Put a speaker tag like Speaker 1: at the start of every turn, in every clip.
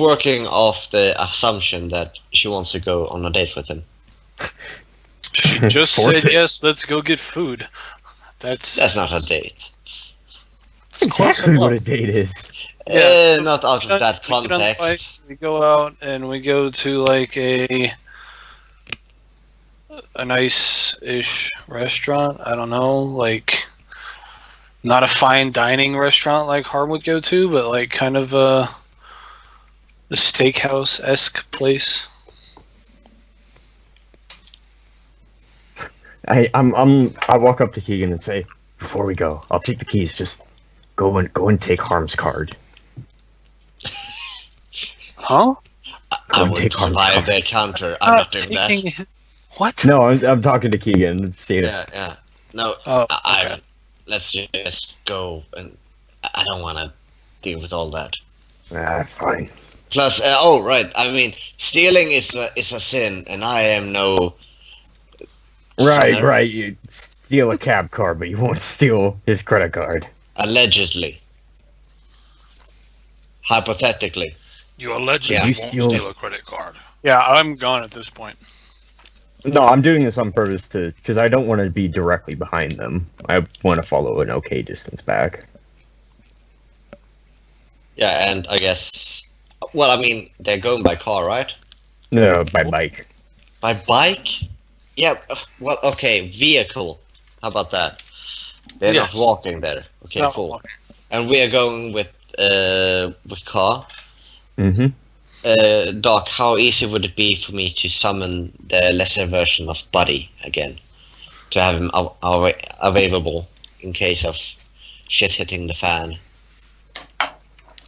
Speaker 1: working off the assumption that she wants to go on a date with him.
Speaker 2: She just
Speaker 3: Force
Speaker 2: said
Speaker 3: it.
Speaker 2: yes. Let's go get food. That's,
Speaker 1: That's not a date.
Speaker 2: that's close
Speaker 3: exactly what a
Speaker 2: enough.
Speaker 3: date is.
Speaker 2: Yeah,
Speaker 1: Eh,
Speaker 2: so
Speaker 1: not out of that
Speaker 2: We get on the bike,
Speaker 1: context.
Speaker 2: We go out and we go to like a a nice ish restaurant. I don't know, like not a fine dining restaurant like Harm would go to, but like kind of a, a steakhouse esque place.
Speaker 3: I, I'm, I'm, I walk up to Keegan and say, "Before we go, I'll take the keys. Just go and go and take Harm's card."
Speaker 2: Huh?
Speaker 1: I
Speaker 3: Don't
Speaker 1: would
Speaker 3: take on
Speaker 1: survive
Speaker 3: the
Speaker 1: the counter. I'm not doing that.
Speaker 2: taking his- What?
Speaker 3: No, I'm, I'm talking to Keegan. Let's see it.
Speaker 1: Yeah, yeah. No,
Speaker 2: Oh,
Speaker 1: I, I-
Speaker 2: okay.
Speaker 1: let's just go. And I I don't want to deal with all that.
Speaker 3: Ah, fine.
Speaker 1: Plus, uh, oh right, I mean, stealing is a, is a sin, and I am no.
Speaker 3: Right,
Speaker 1: sinner,
Speaker 3: right. You steal a cab car, but you won't steal his credit card.
Speaker 1: Allegedly. Hypothetically.
Speaker 4: You allegedly
Speaker 1: Yeah.
Speaker 3: You steal-
Speaker 4: won't steal a credit card.
Speaker 2: Yeah, I'm gone at this point.
Speaker 3: No, I'm doing this on purpose to because I don't want to be directly behind them. I want to follow an okay distance back.
Speaker 1: Yeah, and I guess. Well, I mean, they're going by car, right?
Speaker 3: No, by bike.
Speaker 1: By bike? Yeah. uh, Well, okay, vehicle. How about that? They're
Speaker 2: Yes.
Speaker 1: not walking there. Okay,
Speaker 2: No,
Speaker 1: cool. And we are going with uh with car.
Speaker 3: Mm-hmm.
Speaker 1: Uh, Doc, how easy would it be for me to summon the lesser version of Buddy again, to have him av- av- available in case of shit hitting the fan?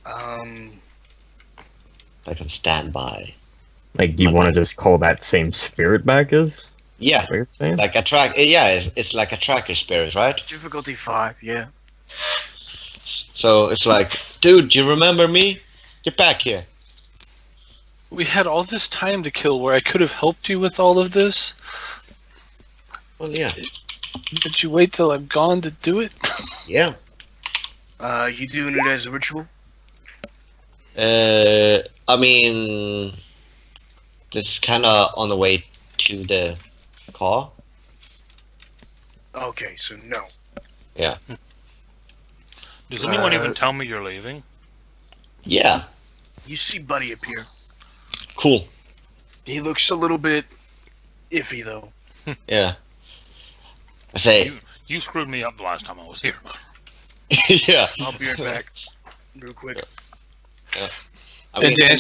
Speaker 5: Um,
Speaker 1: I can stand by.
Speaker 3: Like you want to just call that same spirit back is
Speaker 1: Yeah,
Speaker 3: what you're saying?
Speaker 1: like a track. eh, Yeah, it's, it's like a tracker spirit, right?
Speaker 5: difficulty five. Yeah.
Speaker 1: So it's like, dude, you remember me? Get back here.
Speaker 2: We had all this time to kill where I could have helped you with all of this,
Speaker 1: Well, yeah,
Speaker 2: but you wait till I'm gone to do it?
Speaker 1: yeah.
Speaker 5: Uh, you doing it as a ritual?
Speaker 1: Uh, I mean, this is kind of on the way to the car.
Speaker 5: Okay, so no.
Speaker 4: Does anyone
Speaker 5: Uh,
Speaker 4: even tell me you're leaving?
Speaker 1: Yeah,
Speaker 5: You see Buddy appear.
Speaker 1: cool.
Speaker 5: He looks a little bit iffy though.
Speaker 1: Yeah. I say,
Speaker 4: You, you screwed me up the last time I was here.
Speaker 1: yeah.
Speaker 5: I'll be right back, real quick.
Speaker 1: I mean,
Speaker 2: and to answer